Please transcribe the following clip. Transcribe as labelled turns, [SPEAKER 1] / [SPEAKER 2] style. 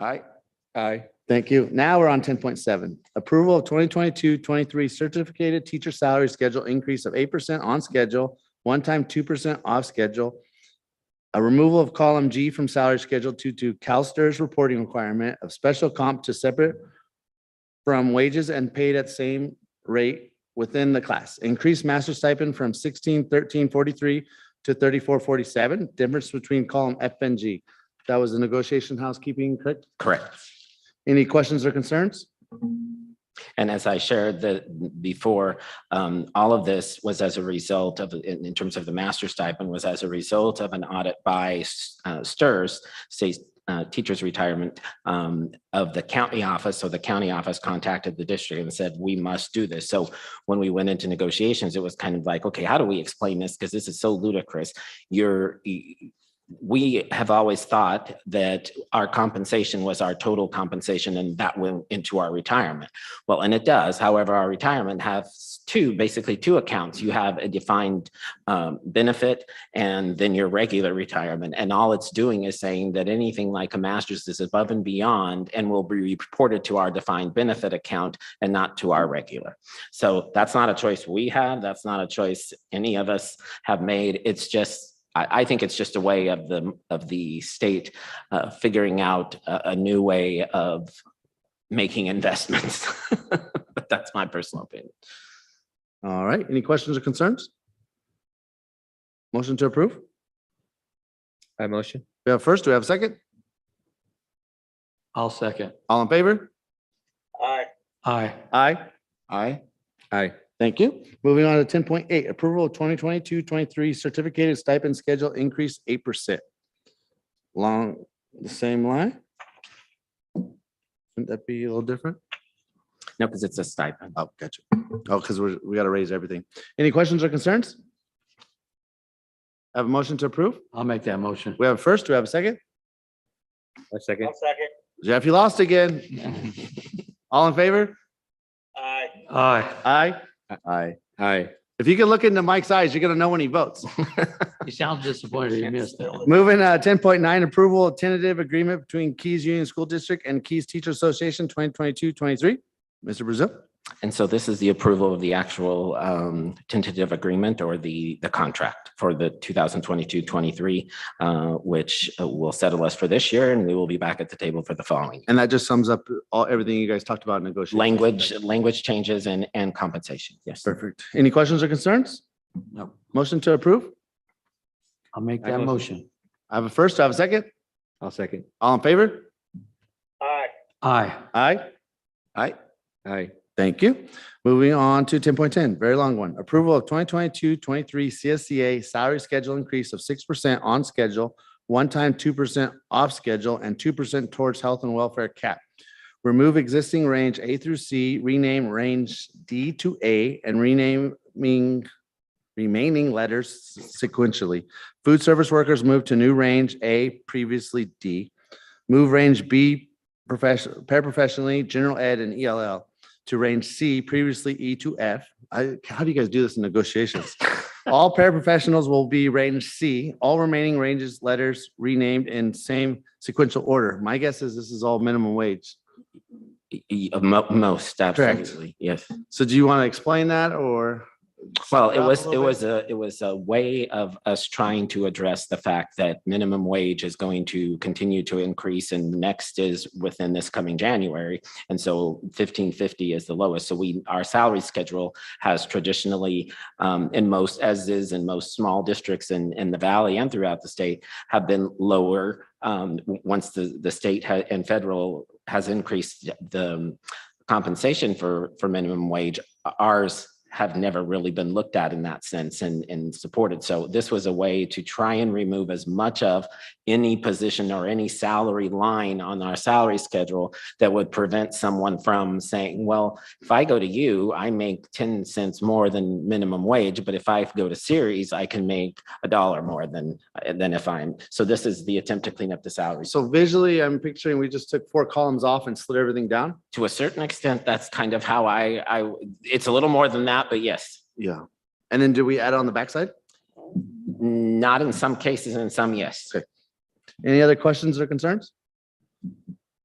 [SPEAKER 1] Aye.
[SPEAKER 2] Aye.
[SPEAKER 1] Thank you. Now we're on ten point seven. Approval of 2022-23 certificated teacher salary schedule increase of eight percent on schedule, one-time two percent off schedule. A removal of column G from salary schedule two to CalSTRS reporting requirement of special comp to separate from wages and paid at same rate within the class. Increased master stipend from sixteen thirteen forty-three to thirty-four forty-seven. Difference between column F and G. That was the negotiation housekeeping, correct?
[SPEAKER 3] Correct.
[SPEAKER 1] Any questions or concerns?
[SPEAKER 3] And as I shared the, before, um, all of this was as a result of, in, in terms of the master stipend, was as a result of an audit by, uh, STRS, State, uh, Teachers Retirement, um, of the county office. So the county office contacted the district and said, we must do this. So when we went into negotiations, it was kind of like, okay, how do we explain this? Because this is so ludicrous. You're, we have always thought that our compensation was our total compensation and that went into our retirement. Well, and it does. However, our retirement has two, basically two accounts. You have a defined um, benefit and then your regular retirement. And all it's doing is saying that anything like a master's is above and beyond and will be reported to our defined benefit account and not to our regular. So that's not a choice we had. That's not a choice any of us have made. It's just, I, I think it's just a way of the, of the state uh, figuring out a, a new way of making investments. But that's my personal opinion.
[SPEAKER 1] All right, any questions or concerns? Motion to approve?
[SPEAKER 2] I motion.
[SPEAKER 1] We have first, do we have a second?
[SPEAKER 4] I'll second.
[SPEAKER 1] All in favor?
[SPEAKER 4] Aye.
[SPEAKER 1] Aye.
[SPEAKER 3] Aye.
[SPEAKER 2] Aye.
[SPEAKER 1] Thank you. Moving on to ten point eight, approval of 2022-23 certificated stipend schedule increase eight percent. Long, the same line? Wouldn't that be a little different?
[SPEAKER 3] No, because it's a stipend.
[SPEAKER 1] Oh, gotcha. Oh, because we're, we gotta raise everything. Any questions or concerns? Have a motion to approve?
[SPEAKER 4] I'll make that motion.
[SPEAKER 1] We have first, do we have a second?
[SPEAKER 2] I second.
[SPEAKER 1] Jeff, you lost again. All in favor?
[SPEAKER 4] Aye.
[SPEAKER 1] Aye. Aye.
[SPEAKER 2] Aye.
[SPEAKER 1] If you can look into Mike's eyes, you're gonna know when he votes.
[SPEAKER 4] You sound disappointed you missed that.
[SPEAKER 1] Moving uh ten point nine, approval of tentative agreement between Keys Union School District and Keys Teacher Association 2022-23. Mr. Brazil,
[SPEAKER 3] And so this is the approval of the actual um, tentative agreement or the, the contract for the 2022-23, uh, which uh, will settle us for this year and we will be back at the table for the following.
[SPEAKER 1] and that just sums up all, everything you guys talked about in negotiations.
[SPEAKER 3] Language, language changes and, and compensation. Yes.
[SPEAKER 1] Perfect. Any questions or concerns?
[SPEAKER 4] No,
[SPEAKER 1] Motion to approve?
[SPEAKER 4] I'll make
[SPEAKER 2] I
[SPEAKER 4] that
[SPEAKER 2] motion.
[SPEAKER 4] motion.
[SPEAKER 1] I have a first, I have a second.
[SPEAKER 2] I'll second.
[SPEAKER 1] All in favor?
[SPEAKER 4] Aye.
[SPEAKER 1] Aye. Aye.
[SPEAKER 2] Aye.
[SPEAKER 1] Thank you. Moving on to ten point ten, very long one. Approval of 2022-23 CSCA salary schedule increase of six percent on schedule, one-time two percent off schedule, and two percent towards health and welfare cap. Remove existing range A through C, rename range D to A, and renaming remaining letters sequentially. Food service workers move to new range A, previously D. Move range B professional, paraprofessionally, general ed and ELL to range C, previously E to F. I, how do you guys do this in negotiations? All paraprofessionals will be range C, all remaining ranges, letters renamed in same sequential order. My guess is this is all minimum wage.
[SPEAKER 3] Y- y- mo- Most, absolutely. Yes.
[SPEAKER 1] So do you want to explain that or?
[SPEAKER 3] Well, it
[SPEAKER 1] up a
[SPEAKER 3] was,
[SPEAKER 1] little
[SPEAKER 3] it
[SPEAKER 1] bit?
[SPEAKER 3] was a, it was a way of us trying to address the fact that minimum wage is going to continue to increase and the next is within this coming January. And so fifteen fifty is the lowest. So we, our salary schedule has traditionally, um, in most, as is in most small districts in, in the valley and throughout the state, have been lower. Um, w- once the, the state ha- and federal has increased the um, compensation for, for minimum wage, ours have never really been looked at in that sense and, and supported. So this was a way to try and remove as much of any position or any salary line on our salary schedule that would prevent someone from saying, well, if I go to you, I make 10 cents more than minimum wage, but if I go to Series, I can make a dollar more than, than if I'm, so this is the attempt to clean up the salary.
[SPEAKER 1] So visually, I'm picturing we just took four columns off and slid everything down.
[SPEAKER 3] To a certain extent, that's kind of how I, I, it's a little more than that, but yes.
[SPEAKER 1] Yeah. And then do we add on the backside?
[SPEAKER 3] Not in some cases, in some, yes.
[SPEAKER 1] Any other questions or concerns?